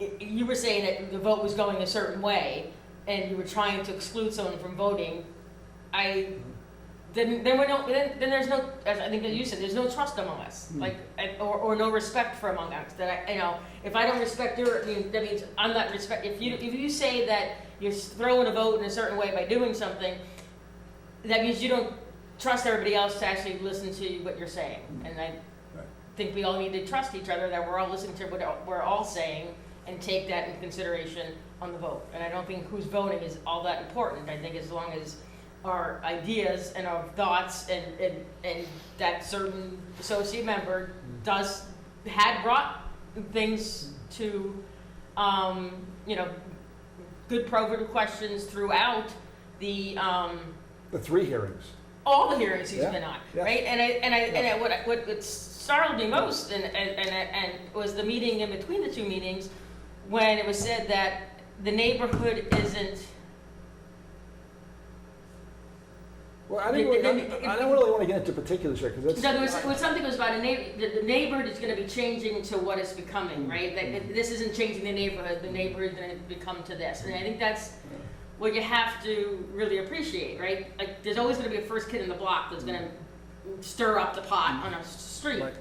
i- you were saying that the vote was going a certain way, and you were trying to exclude someone from voting, I, then, then we don't, then, then there's no, as I think that you said, there's no trust among us, Hmm. like, and- or, or no respect for among us, that I, you know, if I don't respect your, I mean, that means I'm not respect, if you, if you say that you're throwing a vote in a certain way by doing something, that means you don't trust everybody else to actually listen to what you're saying, and I Right. think we all need to trust each other, that we're all listening to what all- we're all saying, and take that into consideration on the vote. And I don't think who's voting is all that important. I think as long as our ideas and our thoughts and, and, and that certain associate member does, had brought things to, um, you know, good probative questions throughout the, um, The three hearings. all the hearings he's Yeah, been on, yeah. right? And I, and I, and I, what, I- what what startled me most and, and, and, and was the meeting in between the two meetings when it was said that the neighborhood isn't, Well, I didn't really, I I don't really want to get into particulars here, because no, there was, that's, was something was about a neigh, the, the neighborhood is gonna be changing to what it's becoming, right? That, Mm-hmm. that this isn't changing the neighborhood, the neighborhood's gonna become to this. And I think that's what you have to really appreciate, right? Like, there's always gonna be a first kid in the block that's gonna stir up the pot on a street. Right.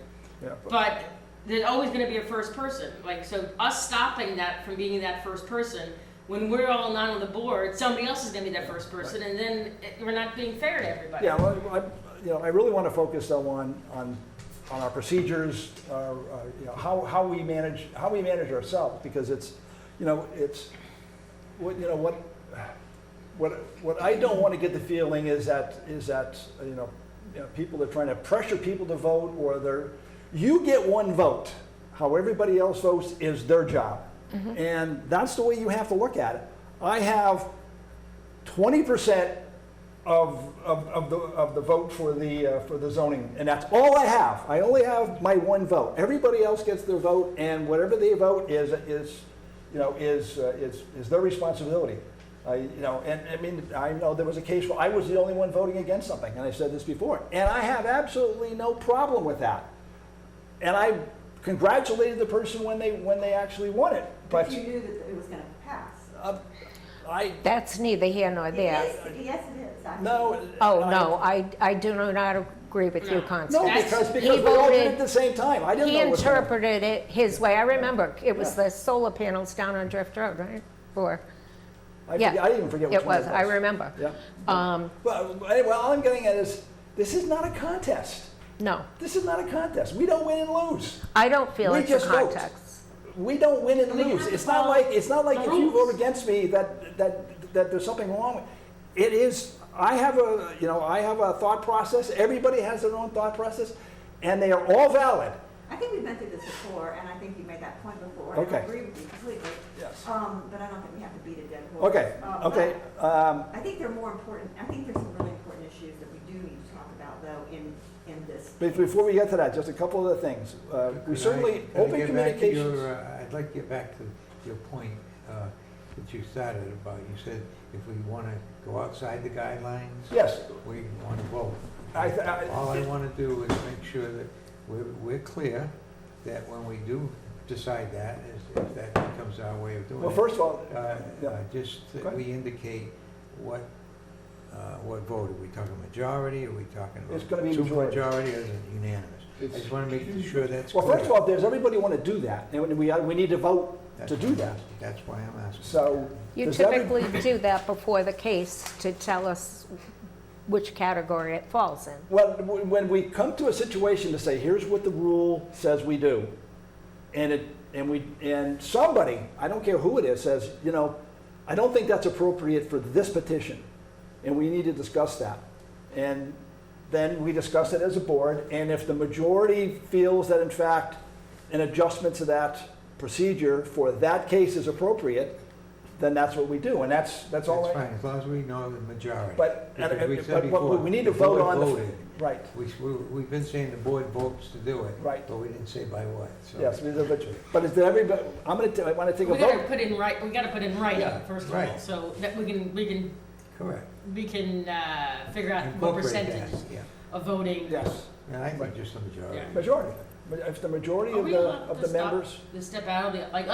yeah, but- But there's always going to be a first person. Like, so us stopping that from being that first person, when we're all not on the board, somebody else is going to be that first person, and then it- we're not being fair to everybody. yeah, well, I, you know, I really want to focus though on, on, on our procedures, our, uh, you know, how, how we manage, how we manage ourselves, because it's, you know, it's, what, you know, what, what, what I don't want to get the feeling is that, is that, you know, you know, people are trying to pressure people to vote, or they're, you get one vote. How everybody else votes is their job. And that's the way you have to look at it. I have twenty percent of, of, of the, of the vote for the, uh, for the zoning, and that's all I have. I only have my one vote. Everybody else gets their vote, and whatever they vote is, is, you know, is, uh, is, is their responsibility. I, you know, and, I mean, I know there was a case where I was the only one voting against something, and I said this before, and I have absolutely no problem with that. And I congratulated the person when they, when they actually won it, But but, you knew that it was gonna pass. uh, I, That's neither here nor It there. is- Yes, it is. I- no. Oh, I- no, I, I do not agree with you, No. No, Constance. That's- because, he because we all did it voted- at the same time. I didn't He know what's going on. interpreted it his way. I remember, it was Yeah. the solar panels down on Drift Road, right? Or, I yeah. forget- I even forget which it one was, I remember. Yeah. Um, Well, anyway, all I'm getting at is, this is not a contest. no, This is not a contest. We don't win and lose. I don't feel We it's a just vote. context. We don't win and We have lose. to It's not follow like, it's not like the if you rules. vote against me that, that, that there's something wrong. with It is, I have a, you know, I have a thought process. Everybody has their own thought process, and they are all valid. I think we've been through this before, and I think you made that point before. and I Okay. agree with you completely. Yes. Um, but I don't think we have to beat a dead horse. Okay, Uh, okay. um, but I think there are more important, I think there's some really important issues that we do need to talk about, though, in, in this. But Before we get to that, just a couple of things. Uh, Could I- We certainly, could I open get back to your, communications. uh, I'd like to get back to your point uh, that you started about, you said if we want to go outside the guidelines. Yes. We want to vote. I th- I- All I want to do is make sure that we're, we're clear that when we do decide that, is- if that becomes our way of doing it. Well, first of all, uh, yeah. uh, Just Go that ahead. we indicate what, uh, what vote, are we talking majority, are we talking about It's gonna be two majority. majority, or is it unanimous? I It's- just want to make sure that's Well, clear. first of all, does everybody want to do that? And we, we need to vote That's to do why- that. That's why I'm asking. So. You does every- typically do that before the case to tell us which category it falls in. Well, w- when we come to a situation to say, here's what the rule says we do, and it, and we, and somebody, I don't care who it is, says, you know, I don't think that's appropriate for this petition, and we need to discuss that. And then we discuss it as a board, and if the majority feels that in fact an adjustment to that procedure for that case is appropriate, then that's what we do, and that's, that's all. That's I- fine, as long as we know the majority. But, and- Because we said but what- before, we need to the vote board on the- voted. Right. We, we- we've been saying the board votes to do it. Right. But we didn't say by what, so. Yes, we did, but, but is there everybody, I'm gonna, t- I wanna take a we got to vote. put in right. We got to put in writing Yeah, first of all, right. so that we can we can Correct. we can uh, figure out what Incorporate that, percentage Yeah, of voting. Yes, and I think just the majority. Yeah. majority. If the majority Are of Oh, we the, allowed of to the stop members. the step out of the like